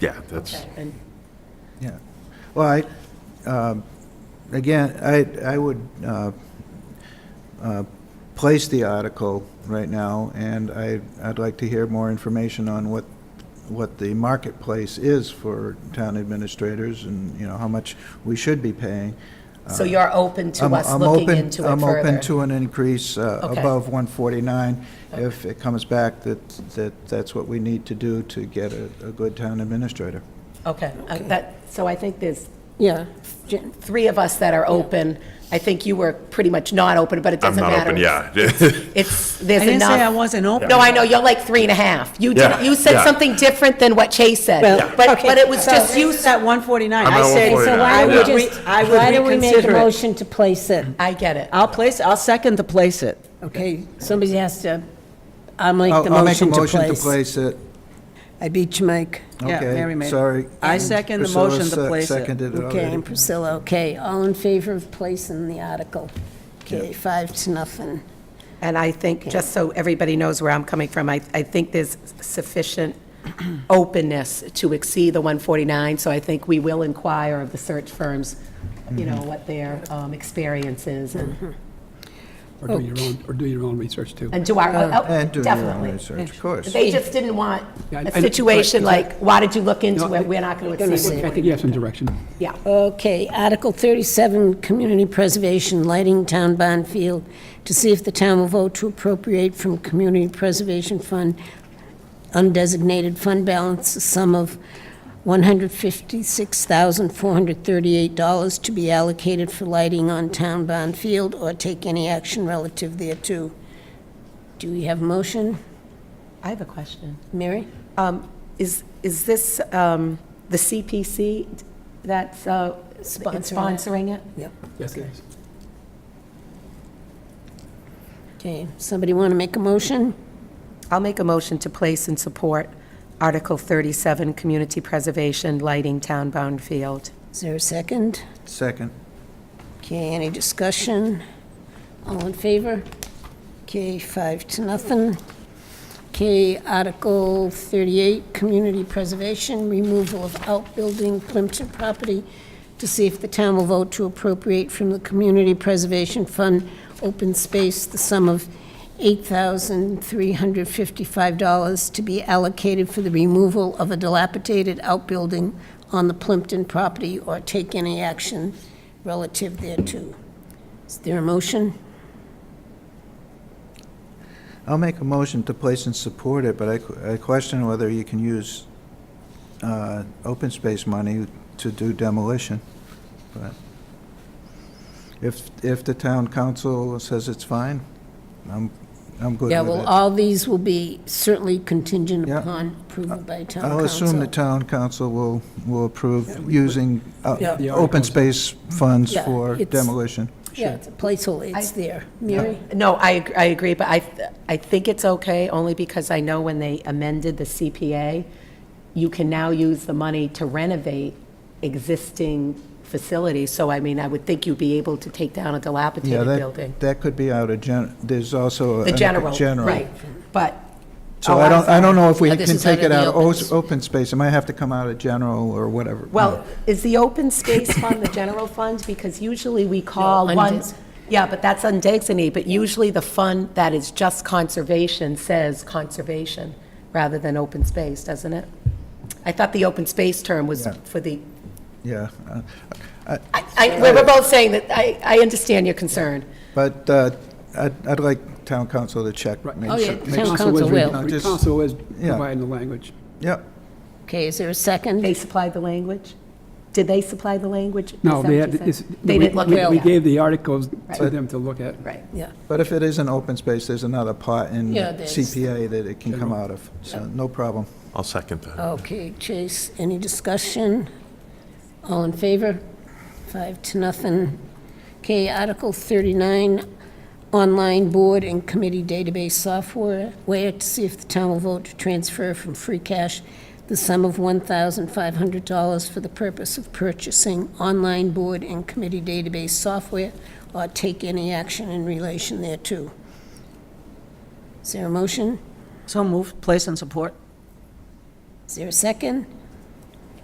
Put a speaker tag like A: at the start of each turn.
A: Yeah, that's,
B: And
C: Yeah, well, I, um, again, I, I would uh, uh, place the article right now, and I, I'd like to hear more information on what, what the marketplace is for town administrators, and, you know, how much we should be paying.
A: uh,
B: so you're open to
C: I'm-
B: us
C: I'm
B: looking
C: open-
B: into it
C: I'm
B: further?
C: open to an increase uh,
B: Okay.
C: above 149 if it comes back that, that that's what we need to do to get a, a good town administrator.
B: Okay, uh, that, so I think there's
D: Yeah,
B: gen- three of us that are open. I think you were pretty much not open, but it
A: I'm
B: doesn't
A: not
B: matter.
A: open, yeah.
B: It's, there's enough.
D: I didn't say I wasn't open.
B: No, I know, you're like three and a half. You
A: Yeah,
B: did, you said
A: yeah.
B: something different than what Chase said.
D: Well,
B: But,
D: okay,
B: but it was
D: so
B: just you,
D: It's at 149.
A: I'm
D: I
A: at
D: said,
A: 149,
D: so
E: I
D: why
A: yeah.
D: would
E: would,
D: just,
E: re- I would
D: why don't we make a
E: reconsider it.
D: motion to place it?
B: I get it.
E: I'll place, I'll second to place it.
D: Okay, somebody has to, I'll make the
C: I'll I'll make a
D: motion to
C: motion to
D: place.
C: place it.
D: I beat you, Mike.
E: Yeah,
C: Okay,
E: Mary made it.
C: Sorry.
E: I second the
C: Priscilla
E: motion to
C: se-
E: place it.
C: Seconded it
D: Okay,
C: already.
D: and Priscilla, okay, all in favor of placing the article? Okay, five to nothing.
B: And I think, just so everybody knows where I'm coming from, I, I think there's sufficient openness to exceed the 149, so I think we will inquire of the search firms, you
C: Mm-hmm.
B: know, what their um, experience is, and
F: Or
B: Oh.
F: do your own, or do your own research too.
B: and do our, oh,
C: And do your own
B: definitely.
C: research, of course.
B: They just didn't want
F: Yeah, I-
B: a
F: I-
B: situation
F: right,
B: like, why did you look into
F: No,
B: it, we're not going to exceed
F: I
B: it.
F: think you have some direction.
B: Yeah,
D: Okay, Article 37, Community Preservation Lighting Town Barn Field, to see if the town will vote to appropriate from Community Preservation Fund undesignated fund balance, a sum of $156,438 to be allocated for lighting on town barn field, or take any action relative thereto. Do we have a motion?
B: I have a question.
D: Mary?
B: Um, Is, is this um, the CPC that's uh,
D: Sponsoring it.
B: sponsoring it?
D: Yep.
F: Yes, it is.
D: Okay, somebody want to make a motion?
B: I'll make a motion to place and support Article 37, Community Preservation Lighting Town-bound Field.
D: Is there a second?
C: Second.
D: Okay, any discussion? All in favor? Okay, five to nothing. Okay, Article 38, Community Preservation, Removal of Outbuilding Plimpton Property, to see if the town will vote to appropriate from the Community Preservation Fund Open Space the sum of $8,355 to be allocated for the removal of a dilapidated outbuilding on the Plimpton property, or take any action relative thereto. Is there a motion?
C: I'll make a motion to place and support it, but I que- I question whether you can use uh, open space money to do demolition. But If, if the town council says it's fine, I'm, I'm good with it.
D: Yeah, well, all these will be certainly contingent
C: Yeah.
D: upon approval by town council.
C: I'll assume the town council will, will approve using uh,
D: Yeah.
F: The
C: open
F: articles.
C: space funds
D: Yeah,
C: for
D: it's-
C: demolition.
D: Yeah, it's a placeholder, it's there. Mary?
B: No, I, ag- I agree, but I, I think it's okay, only because I know when they amended the CPA, you can now use the money to renovate existing facilities. So I mean, I would think you'd be able to take down a
C: Yeah,
B: dilapidated building.
C: that, that could be out of gen, there's also.
B: The
C: an-
B: general,
C: general.
B: right. But.
C: So
B: Oh,
C: I don't, I don't know if we
D: Oh, this
C: can
D: is
C: take
D: out of
C: it
D: the
C: out of
D: open
C: os-
D: space.
C: open space. It might have to come out of general or whatever.
B: Well, is the open space fund the general fund? Because usually we call
D: No,
B: one,
D: undes-
B: yeah, but that's undesignated, but usually the fund that is just conservation says conservation rather than open space, doesn't it? I thought the open space term was
C: Yeah.
B: for the,
C: Yeah. uh,
B: I, I, we we're both saying that, I, I understand your concern.
C: But uh, I'd, I'd like town council to check. make
D: Oh, yeah,
C: sure-
D: Town
C: make-
D: council
F: is-
D: will.
F: the Council is
C: Yeah.
F: providing the language.
C: Yep.
D: Okay, is there a
B: They
D: second?
B: supplied the language? Did they supply the language? Is
F: No,
B: that
F: they
B: what
F: had,
B: you said?
F: it's-
B: They
F: we-
B: didn't look
F: we-
B: at
F: We
B: it.
F: gave the articles to
B: Right.
F: them to look at.
B: Right.
D: Yeah,
C: But if it is an open space, there's another pot in
D: Yeah, there's-
C: CPA that it can come out of. So no problem.
A: I'll second that.
D: okay, Chase, any discussion? All in favor? Five to nothing. Okay, Article 39, online board and committee database software, where to see if the town will vote to transfer from free cash the sum of $1,500 for the purpose of purchasing online board and committee database software, or take any action in relation thereto. Is there a motion?
E: So move, place and support.
D: Is there a second?